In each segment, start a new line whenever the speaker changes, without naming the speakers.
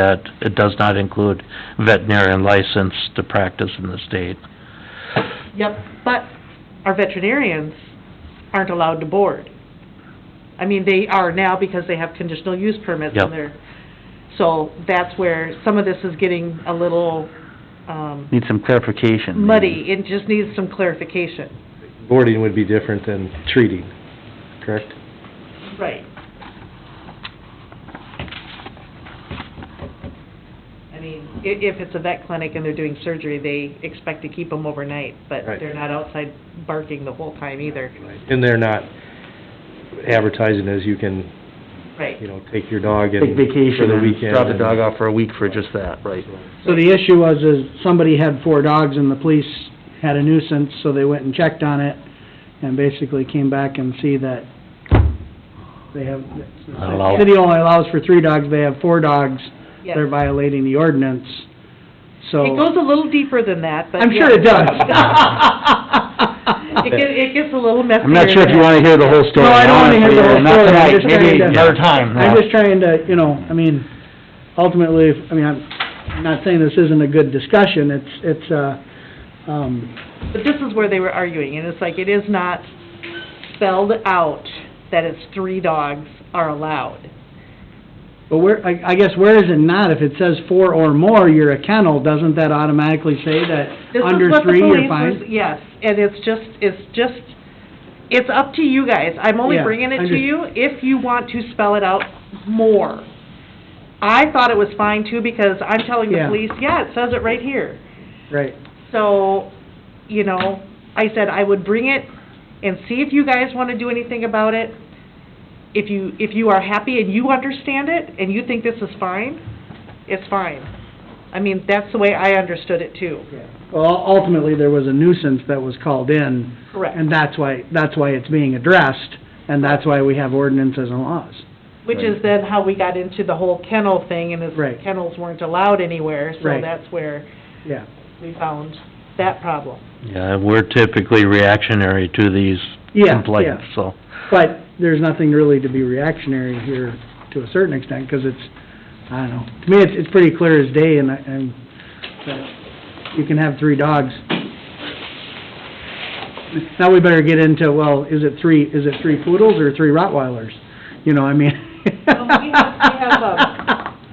that it does not include veterinarian license to practice in the state.
Yep, but our veterinarians aren't allowed to board. I mean, they are now because they have conditional use permits
Yep.
and they're, so that's where some of this is getting a little, um,
Need some clarification.
muddy. It just needs some clarification.
Boarding would be different than treating, correct?
Right. I mean, i- if it's a vet clinic and they're doing surgery, they expect to keep them overnight, but
Right.
they're not outside barking the whole time either.
And they're not advertising as you can, you
Right.
know, take your dog and...
Take
for
vacation
the
and
weekend
drop the
and-
dog off for a week for just that, right?
So the issue was, is somebody had four dogs and the police had a nuisance, so they went and checked on it and basically came back and see that they have,
Not allowed.
the city only allows for three dogs, they have four dogs,
Yes.
they're violating the ordinance, so.
It goes a little deeper than that, but.
I'm sure
yeah.
it does.
It gets, it gets a little messier.
I'm not sure if you wanna hear the whole story.
No, I don't wanna hear the whole
honestly, not
story. I'm
tonight,
just trying
maybe
to-
Another time.
I'm just trying to, you know, I mean, ultimately, if- I mean, I'm I'm not saying this isn't a good discussion, it's, it's, uh, um,
But this is where they were arguing, and it's like, it is not spelled out that it's three dogs are allowed.
But where, I, I guess where is it not? If it says four or more, you're a kennel, doesn't that automatically say that
This is
under
what the
three, you're
police was-
fine?
Yes, and it's just, it's just, it's up to you guys. I'm only
Yeah,
bringing it
I
to you if you want to spell it out more. I thought it was fine too, because I'm telling the
Yeah.
police, yeah, it says it right here.
Right.
So, you know, I said I would bring it and see if you guys want to do anything about it. If you, if you are happy and you understand it, and you think this is fine, it's fine. I mean, that's the way I understood it too.
Well, ultimately, there was a nuisance that was called in,
Correct.
and that's why, that's why it's being addressed, and that's why we have ordinances and laws.
Which is then how we got into the whole kennel thing, and is
Right.
kennels weren't allowed anywhere, so
Right.
that's where
Yeah.
we found that problem.
Yeah, we're typically reactionary to these
Yeah,
complaints,
yeah.
so.
But there's nothing really to be reactionary here to a certain extent, because it's, I don't know. To me, it's, it's pretty clear as day, and, I- and that you can have three dogs. Now we better get into, well, is it three, is it three poodles or three Rottweilers? You know, I mean.
Well, we have- we have, um, I mean,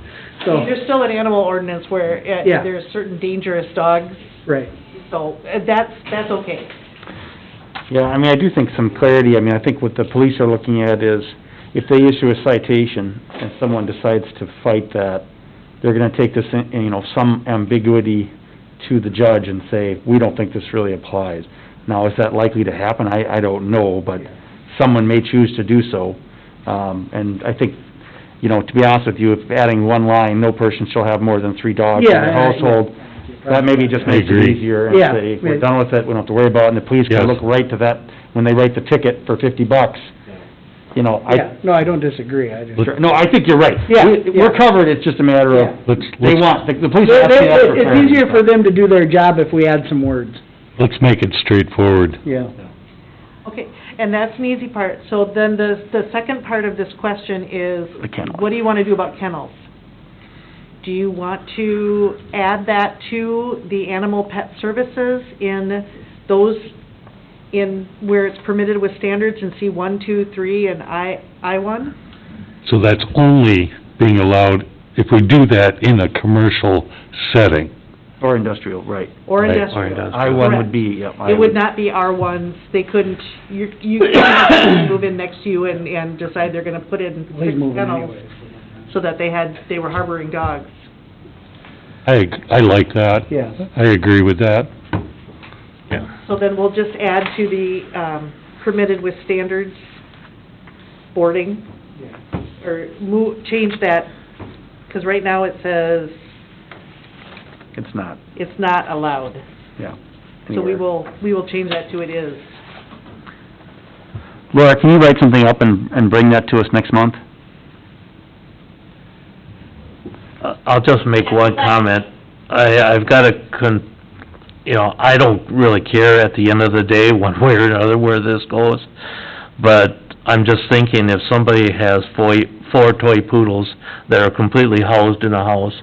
So,
There's still an animal ordinance where uh,
Yeah.
there's certain dangerous dogs,
right.
so uh, that's, that's okay.
Yeah, I mean, I do think some clarity, I mean, I think what the police are looking at is, if they issue a citation and someone decides to fight that, they're gonna take this, in you know, some ambiguity to the judge and say, we don't think this really applies. Now, is that likely to happen? I, I don't know, but someone may choose to do so. Um, and I think, you know, to be honest with you, if adding one line, no person shall have more than three dogs in
Yeah, I-
their
I-
household, that maybe just
I
makes it
agree.
easier and
Yeah,
say, we're
yeah.
done with it, we don't have to worry about it, and the police can
Yes.
look right to that, when they write the ticket for fifty bucks, you know,
Yeah,
I,
no, I don't disagree, I just.
Sure. no, I think you're right.
Yeah,
We- We're
yeah.
covered, it's just a matter
Yeah.
of,
Let's,
they
let's,
want, the the police are asking that for
It's
clarity.
easier for them to do their job if we add some words.
let's make it straightforward.
Yeah.
Okay, and that's an easy part. So then the, the second part of this question is,
The kennel.
what do you want to do about kennels? Do you want to add that to the animal pet services in those, in where it's permitted with standards in C one, two, three, and I, I one?
So that's only being allowed if we do that in a commercial setting.
Or industrial, right.
Or
Right, or
industrial?
I one would be, yeah. I
It would not be R ones, they couldn't, you, you couldn't move in next to you and, and decide they're gonna put in six
Please move it
kennels
anyways.
so that they had, they were harboring dogs.
I, ag- I like that.
Yes.
I agree with that.
So then we'll just add to the um, permitted with standards boarding, or move, change that, because right now it says
It's not,
it's not allowed.
yeah.
So we
Anywhere.
will, we will change that to it is.
Laura, can you write something up and, and bring that to us next month?
Uh, I'll just make one comment. I, I've got a con, you know, I don't really care at the end of the day, one way or another, where this goes. But I'm just thinking if somebody has four, four toy poodles that are completely housed in a house,